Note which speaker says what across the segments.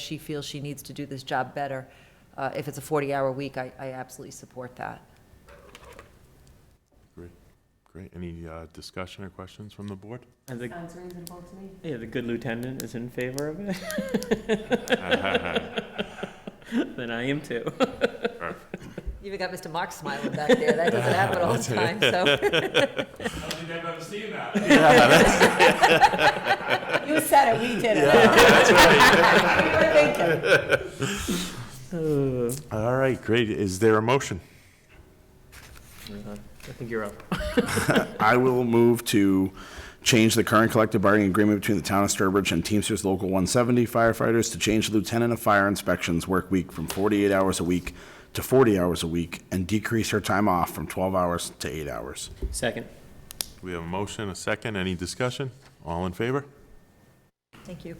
Speaker 1: she feels she needs to do this job better. Uh, If it's a 40-hour week, I I absolutely support that.
Speaker 2: Great, great. Any uh, discussion or questions from the board?
Speaker 3: And the,
Speaker 4: Sounds reasonable to me.
Speaker 3: yeah, the good lieutenant is in favor of it, then I am too.
Speaker 1: You Even got Mr. Mark smiling back there. That doesn't happen all the time, so.
Speaker 5: I don't think I've ever seen that.
Speaker 4: You said it, we did it. We were thinking.
Speaker 3: Uh,
Speaker 2: All right, great. Is there a motion?
Speaker 3: I think you're up.
Speaker 6: I will move to change the current collective bargaining agreement between the town of Sturbridge and Teamsters Local 170 firefighters to change lieutenant of fire inspections work week from 48 hours a week to 40 hours a week and decrease her time off from 12 hours to 8 hours.
Speaker 3: Second.
Speaker 2: We have a motion, a second. Any discussion? All in favor?
Speaker 1: Thank you.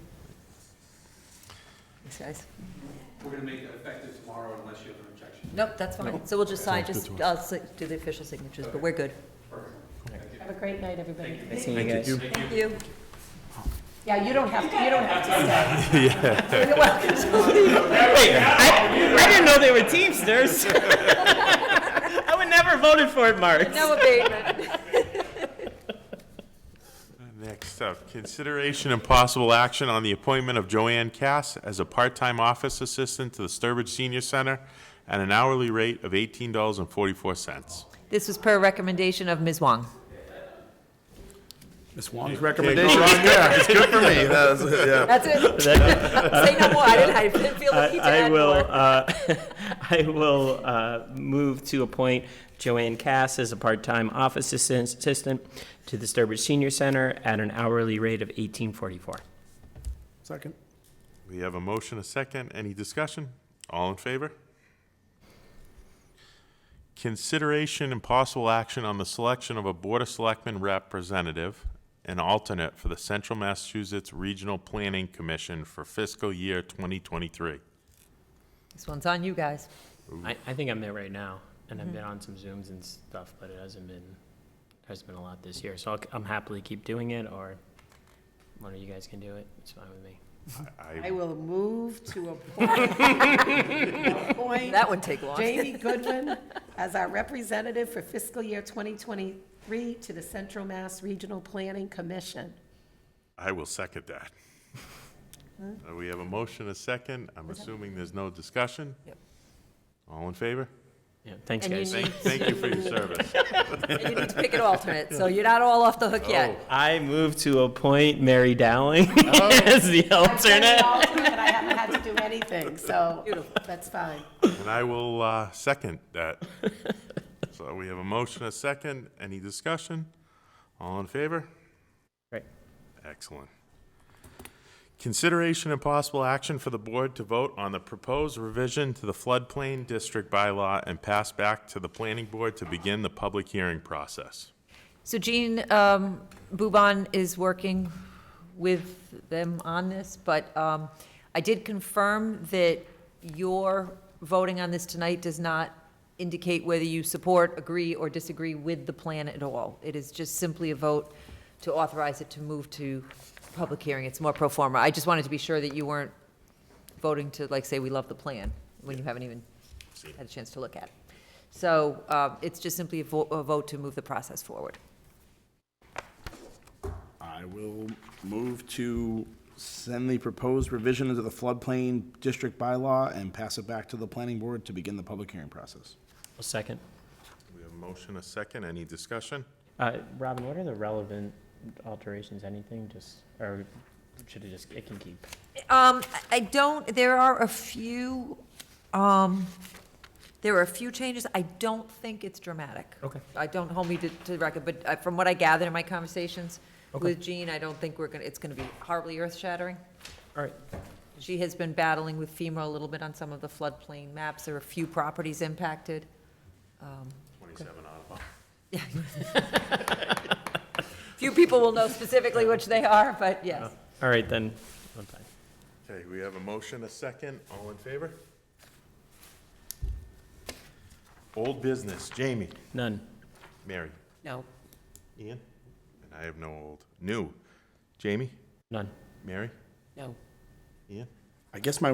Speaker 1: Thanks, guys.
Speaker 7: We're gonna make it effective tomorrow unless you have an objection.
Speaker 1: Nope, that's fine. So we'll just sign, just, I'll si- do the official signatures, but we're good.
Speaker 4: Have a great night, everybody.
Speaker 3: Nice seeing you guys.
Speaker 1: Thank you.
Speaker 4: Yeah, you don't have, to. you don't have to stay.
Speaker 1: You're welcome to leave.
Speaker 3: Wait, I, I didn't know they were Teamsters. I would never have voted for it, Mark.
Speaker 1: No abatement.
Speaker 2: Next up, consideration and possible action on the appointment of Joanne Cass as a part-time office assistant to the Sturbridge Senior Center at an hourly rate of $18.44.
Speaker 1: This was per recommendation of Ms. Wong.
Speaker 6: Ms. Wong's recommendation? Yeah, it's good for me. That's- yeah.
Speaker 1: That's it. Say no more. I didn't, I didn't feel the need to
Speaker 3: I
Speaker 1: add
Speaker 3: will,
Speaker 1: more.
Speaker 3: uh, I will uh, move to appoint Joanne Cass as a part-time office assistant assistant to the Sturbridge Senior Center at an hourly rate of eighteen forty-four.
Speaker 6: Second.
Speaker 2: We have a motion, a second. Any discussion? All in favor? Consideration and possible action on the selection of a Board of Selectmen representative and alternate for the Central Massachusetts Regional Planning Commission for fiscal year 2023.
Speaker 1: This one's on you guys.
Speaker 3: I, I think I'm there right now, and
Speaker 1: Mm-hmm.
Speaker 3: I've been on some Zooms and stuff, but it hasn't been, hasn't been a lot this year, so I'll, I'm happily keep doing it, or one of you guys can do it, it's fine with me.
Speaker 2: I
Speaker 4: I will move to appoint, appoint
Speaker 1: That would take long.
Speaker 4: Jamie Goodwin as our representative for fiscal year 2023 to the Central Mass Regional Planning Commission.
Speaker 2: I will second that. Uh, We have a motion, a second. I'm assuming there's no discussion?
Speaker 1: Yep.
Speaker 2: All in favor?
Speaker 3: Yeah, thanks,
Speaker 1: And you
Speaker 3: guys.
Speaker 1: need-
Speaker 2: Thank thank you for your service.
Speaker 1: And you need to pick an alternate, so you're not all off the hook yet.
Speaker 3: I move to appoint Mary Dowling
Speaker 1: Oh.
Speaker 3: as the
Speaker 4: I've been an
Speaker 3: alternate.
Speaker 4: alternate, I haven't had to do anything, so
Speaker 1: Beautiful.
Speaker 4: that's fine.
Speaker 2: And I will uh, second that. So we have a motion, a second. Any discussion? All in favor?
Speaker 3: Right.
Speaker 2: Excellent. Consideration and possible action for the board to vote on the proposed revision to the floodplain district bylaw and pass back to the planning board to begin the public hearing process.
Speaker 1: So Jean um, Bouban is working with them on this, but um, I did confirm that your voting on this tonight does not indicate whether you support, agree, or disagree with the plan at all. It is just simply a vote to authorize it to move to public hearing. It's more pro forma. I just wanted to be sure that you weren't voting to, like, say, we love the plan, when you haven't even had a chance to look at it. So uh, it's just simply a vo- a vote to move the process forward.
Speaker 6: I will move to send the proposed revision to the floodplain district bylaw and pass it back to the planning board to begin the public hearing process.
Speaker 3: A second.
Speaker 2: We have a motion, a second. Any discussion?
Speaker 3: Uh, Robin, what are the relevant alterations, anything, just, or should it just, it can keep?
Speaker 1: Um, I- I don't, there are a few, um, there are a few changes. I don't think it's dramatic.
Speaker 3: Okay.
Speaker 1: I don't hold me to, to the record, but uh, from what I gathered in my conversations
Speaker 3: Okay.
Speaker 1: with Jean, I don't think we're gonna, it's gonna be horribly earth-shattering.
Speaker 3: All right,
Speaker 1: She has been battling with FEMA a little bit on some of the floodplain maps. There are a few properties impacted.
Speaker 2: Twenty-seven Audubon.
Speaker 1: Few people will know specifically which they are, but
Speaker 3: uh,
Speaker 1: yes.
Speaker 3: all right, then, I'm fine.
Speaker 2: Okay, we have a motion, a second. All in favor? Old business, Jamie.
Speaker 3: None.
Speaker 2: Mary.
Speaker 1: No.
Speaker 2: Ian? And I have no old. New. Jamie?
Speaker 3: None.
Speaker 2: Mary?
Speaker 1: No.
Speaker 2: Ian?
Speaker 6: I guess my